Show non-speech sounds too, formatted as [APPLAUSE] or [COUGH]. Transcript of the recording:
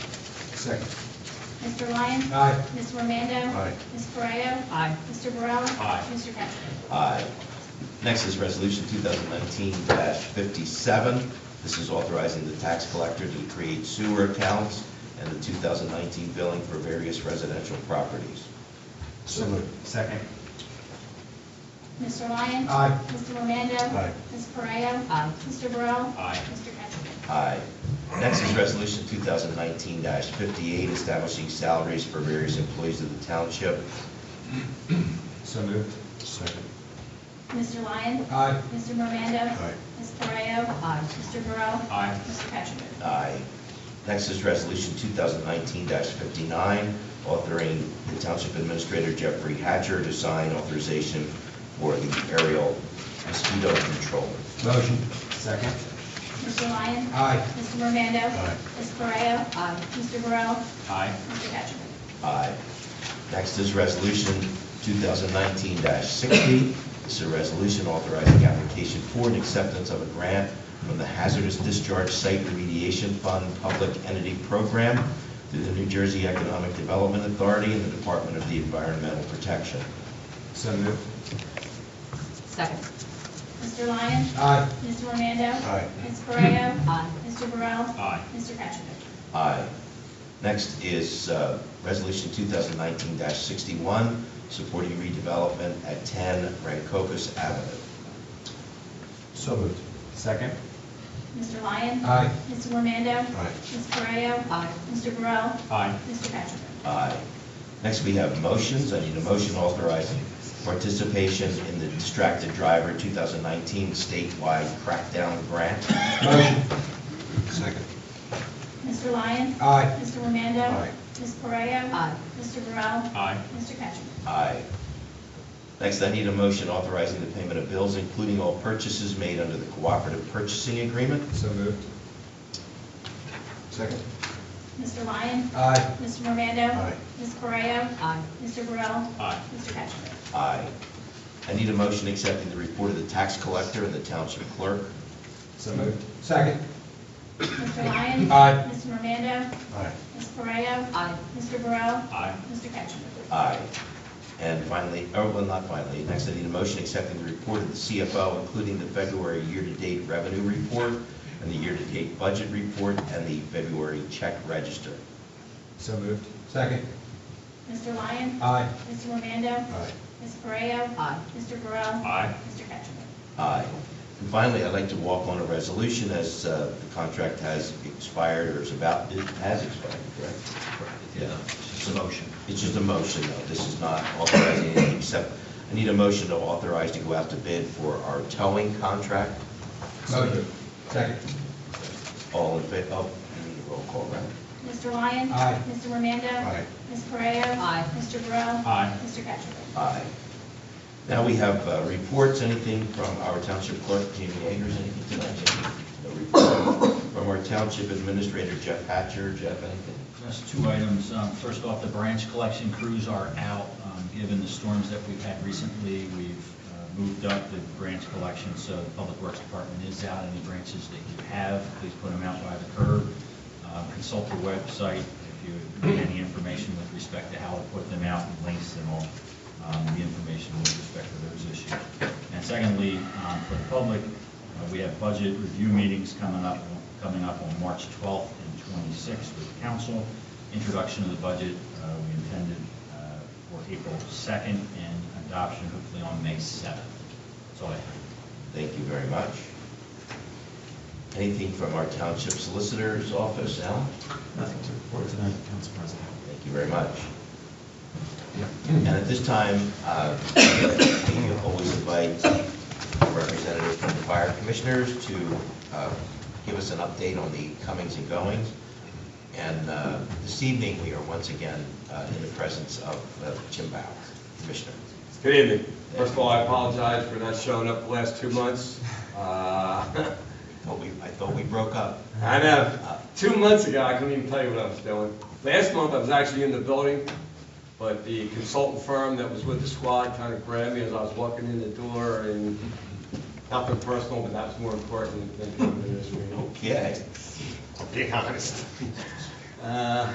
Second. Mr. Lyon? Aye. Ms. Romando? Aye. Ms. Correa? Aye. Mr. Burrell? Aye. Mr. Cattrick? Aye. Uh, Next is Resolution 2019-57. This is authorizing the tax collector to create sewer accounts and the 2019 billing for various residential properties. So moved. Second. Mr. Lyon? Aye. Mr. Romando? Aye. Ms. Correa? Aye. Mr. Burrell? Aye. Mr. Cattrick? Aye. Next is Resolution 2019-58, establishing salaries for various employees of the township. So moved. Second. Mr. Lyon? Aye. Mr. Romando? Aye. Ms. Correa? Aye. Mr. Burrell? Aye. Mr. Cattrick? Aye. Next is Resolution 2019-59, authoring the Township Administrator Jeffrey Hatcher to sign authorization for the aerial mosquito control. Motion. Second. Mr. Lyon? Aye. Mr. Romando? Aye. Ms. Correa? Aye. Mr. Burrell? Aye. Mr. Cattrick? Aye. Next is Resolution 2019-60. This is a resolution authorizing application for and acceptance of a grant from the Hazardous Discharge Site Remediation Fund Public Entity Program through the New Jersey Economic Development Authority and the Department of the Environmental Protection. So moved. Second. Mr. Lyon? Aye. Mr. Romando? Aye. Ms. Correa? Aye. Mr. Burrell? Aye. Mr. Cattrick? Aye. Next is uh, Resolution 2019-61, supporting redevelopment at 10 Rancocas Avenue. So moved. Second. Mr. Lyon? Aye. Mr. Romando? Aye. Ms. Correa? Aye. Mr. Burrell? Aye. Mr. Cattrick? Aye. Next, we have motions. I need a motion authorizing participation in the Distracted Driver 2019 statewide crackdown grant. Motion. Second. Mr. Lyon? Aye. Mr. Romando? Aye. Ms. Correa? Aye. Mr. Burrell? Aye. Mr. Cattrick? Aye. Next, I need a motion authorizing the payment of bills, including all purchases made under the cooperative purchasing agreement. So moved. Second. Mr. Lyon? Aye. Mr. Romando? Aye. Ms. Correa? Aye. Mr. Burrell? Aye. Mr. Cattrick? Aye. I need a motion accepting the report of the tax collector and the township clerk. So moved. Second. Mr. Lyon? Aye. Mr. Romando? Aye. Ms. Correa? Aye. Mr. Burrell? Aye. Mr. Cattrick? Aye. And finally, oh, well, not finally, next I need a motion accepting the report of the CFO, including the February year-to-date revenue report and the year-to-date budget report and the February check register. So moved. Second. Mr. Lyon? Aye. Mr. Romando? Aye. Ms. Correa? Aye. Mr. Burrell? Aye. Mr. Cattrick? Aye. And finally, I'd like to walk on a resolution as uh, the contract has expired or is about, it has expired, correct? Yeah. It's a motion. It's just a motion, though. This is not authorizing anything except, I need a motion to authorize to go out to bid for our towing contract. Motion. Second. All in favor, oh, I need a roll call, right? Mr. Lyon? Aye. Mr. Romando? Aye. Ms. Correa? Aye. Mr. Burrell? Aye. Mr. Cattrick? Aye. Now we have uh, reports, anything from our township clerk, Jamie Agers, anything tonight? Jamie? No report. From our township administrator, Jeff Hatcher, Jeff, anything? Just two items. Um, First off, the branch collection crews are out. Um, Given the storms that we've had recently, we've uh, moved up the branch collection, so the Public Works Department is out. Any branches that you have, please put them out by the curb. Uh, Consult the website if you need any information with respect to how to put them out and links and all um, the information with respect to those issues. And secondly, um, for the public, uh, we have budget review meetings coming up, coming up on March 12th and 26th with the council. Introduction of the budget, uh, we intended uh, for April 2nd and adoption hopefully on May 7th. That's all I have. Thank you very much. Anything from our township solicitor's office, Al? Nothing to report tonight, Council President. Thank you very much. And at this time, uh, we always invite representatives from the fire commissioners to uh, give us an update on the comings and goings. And uh, this evening, we are once again uh, in the presence of uh, Jim Bauer, Commissioner. Good evening. First of all, I apologize for not showing up the last two months. Uh, [LAUGHS] Thought we- I thought we broke up. I know, two months ago, I couldn't even tell you what I was doing. Last month, I was actually in the building, but the consultant firm that was with the squad kind of grabbed me as I was walking in the door, and nothing personal, but that's more important than coming to this meeting. Okay. I'll be honest. Uh,